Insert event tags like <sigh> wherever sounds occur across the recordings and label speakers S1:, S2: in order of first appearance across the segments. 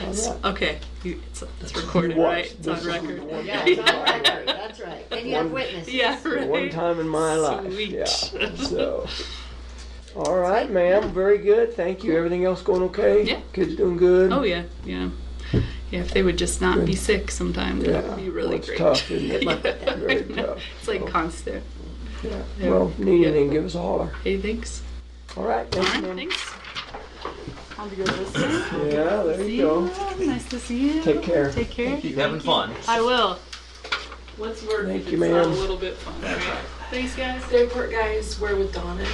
S1: Yes,
S2: look.
S1: okay, you, it's, it's recorded,
S3: You watch.
S1: right? It's
S3: This
S1: on
S3: is
S1: record.
S3: the
S1: <laughs>
S3: one-
S2: Yeah, it's on record, that's right. And you have
S3: One-
S2: witnesses.
S1: Yeah, right.
S3: One time in my life.
S1: Sweet.
S3: Yeah. So. All right, ma'am. Very good. Thank you. Everything else going okay?
S1: Yeah.
S3: Kids doing
S1: <laughs>
S3: good.
S1: Oh, yeah, yeah. Yeah, if they would just not be sick sometimes, that would be
S3: Yeah.
S1: really
S3: Well, it's
S1: great.
S3: tough,
S1: <laughs>
S3: isn't it?
S1: Yeah,
S3: Very
S1: I know.
S3: tough.
S1: It's like
S3: So,
S1: constant.
S3: yeah.
S1: yeah.
S3: Well, if need
S1: Yeah.
S3: anything, give us a holler.
S1: Hey, thanks.
S3: All right.
S1: All
S3: Thank
S1: right,
S3: you, ma'am.
S1: thanks.
S4: On to go this way.
S3: Yeah, there
S1: See
S3: you go.
S1: you. Nice to see you.
S3: Take care.
S1: Take care.
S5: Keep having fun.
S1: I will. Let's work.
S3: Thank
S1: if
S3: you,
S1: it's not
S3: ma'am.
S1: A little bit fun.
S5: That's
S1: right? Thanks, guys.
S6: Newport guys were with Donna,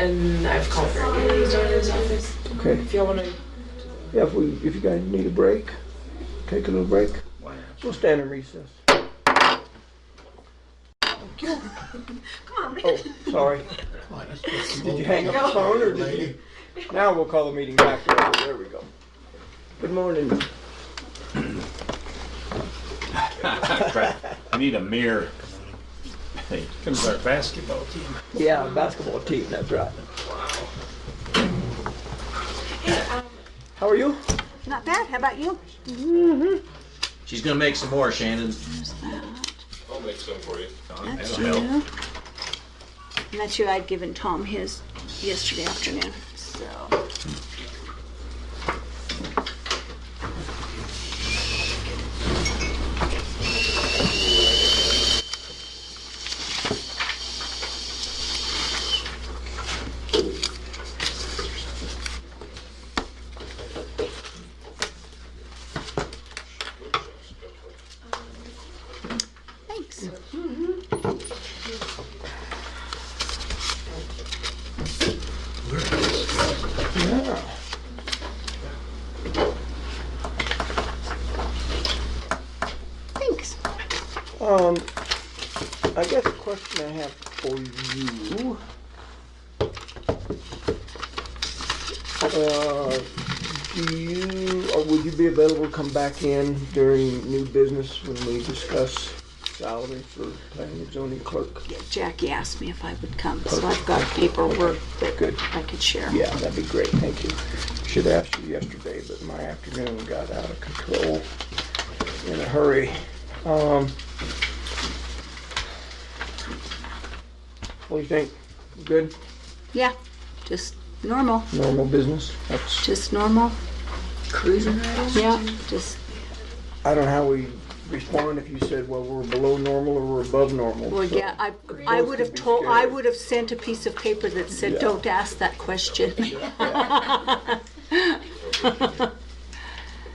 S6: and I've called for meetings down in his office.
S3: Okay.
S6: If y'all want to
S3: Yeah, if we if you guys need a break, take a little break.
S5: Why not?
S3: We'll stand in recess.
S1: <laughs> Come on.
S3: Oh, sorry. Did you hang up the phone or did you?
S1: <laughs>
S3: Now we'll call the meeting back. There there we go. Good morning.
S5: Crap. I need a mirror. Hey,
S7: Comes our basketball team.
S3: Yeah, basketball team, that's right. How are you?
S4: Not bad. How about you?
S5: She's gonna make some more, Shannon.
S7: I'll make some for you.
S4: That's
S5: That'll
S4: you. And that's you. I'd given Tom his yesterday afternoon. So. Thanks.
S3: Yeah.
S4: Thanks.
S3: Um, I guess the question I have for you. Uh, do you, or would you be available to come back in during new business when we discuss salary for planning and zoning clerk?
S4: Yeah, Jackie asked me if I would come, so I've got paperwork
S3: Good.
S4: that I could share.
S3: Yeah, that'd be great, thank you. Should have asked you yesterday, but my afternoon got out of control in a hurry. Um, what do you think? Good,
S4: Yeah, just normal,
S3: normal business? That's,
S4: just normal.
S6: cruising right
S4: Yeah, just,
S3: I don't know how we respond if you said, well, we're below normal or we're above normal.
S4: well,
S3: so-
S4: yeah, I, I would have told, I would have sent a piece of paper that
S3: Yeah.
S4: said, don't ask that question.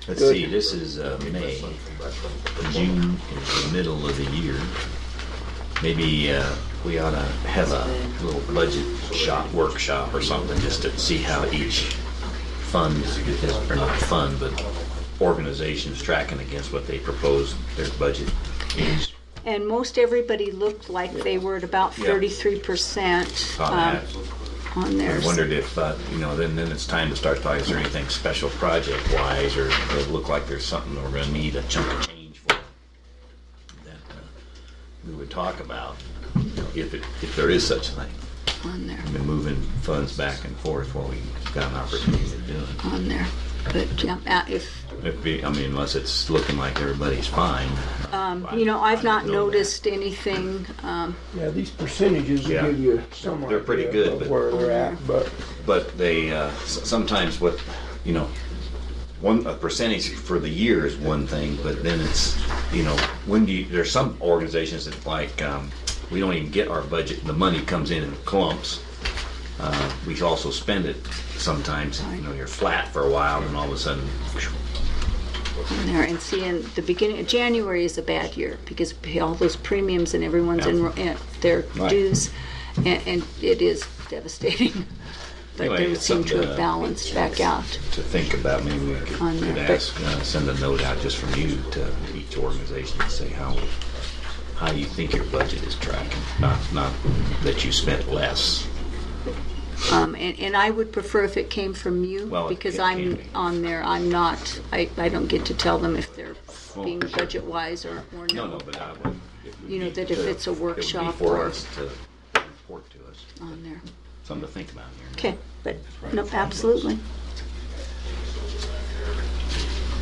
S5: Let's
S3: Good.
S5: see, this is uh, May. June is the middle of the year. Maybe uh, we ought to have a little budget shop, workshop or something, just to see how each fund is, or not fund, but organization's tracking against what they propose their budget is.
S4: And most everybody looked like they were at about
S5: Yeah.
S4: thirty-three percent
S5: on
S4: um,
S5: that.
S4: on
S5: I
S4: theirs.
S5: wondered if, uh, you know, then, then it's time to start talking, is there anything special project-wise, or or it look like there's something that we're gonna need a chunk of change for? That uh, We would talk about, you know, if it, if there is such a thing,
S4: On there,
S5: I mean, moving funds back and forth where we've got an opportunity to do it.
S4: on there. But, yeah, uh, if,
S5: It'd be, I mean, unless it's looking like everybody's fine.
S4: um, you know, I've not
S5: Know that.
S4: noticed anything, um,
S3: Yeah, these percentages
S5: Yeah.
S3: give you some
S5: They're pretty
S3: idea
S5: good,
S3: of
S5: but-
S3: Where they're at, but,
S5: but they uh, s- sometimes what you know one a percentage for the year is one thing but then it's you know when do you there's some organizations that like um, we don't even get our budget the money comes in in clumps uh, we also spend it sometimes you know you're flat for a while and all of a sudden
S4: on there. And see, in the beginning, January is a bad year because we pay all those premiums and everyone's in, and their
S5: Right.
S4: dues. And, and it is devastating. <laughs> But
S5: Anyway,
S4: they
S5: it's
S4: seem to
S5: something
S4: have
S5: to-
S4: balanced back out.
S5: to think about maybe we could,
S4: On
S5: could
S4: that, but-
S5: ask uh, send a note out just from you to each organization to say how how you think your budget is tracking not not that you spent less
S4: Um, and, and I would prefer if it came from you
S5: Well, it-
S4: because
S5: it can
S4: I'm
S5: be.
S4: on there, I'm not, I, I don't get to tell them if they're
S5: Well,
S4: being
S5: sure.
S4: budget wise or, or
S5: No, no,
S4: no
S5: but I would. it would
S4: You know,
S5: be
S4: that if
S5: to-
S4: it's a
S5: it would be
S4: workshop
S5: For
S4: or-
S5: us to report to us,
S4: on there.
S5: something to think about here.
S4: Okay, but, no, absolutely.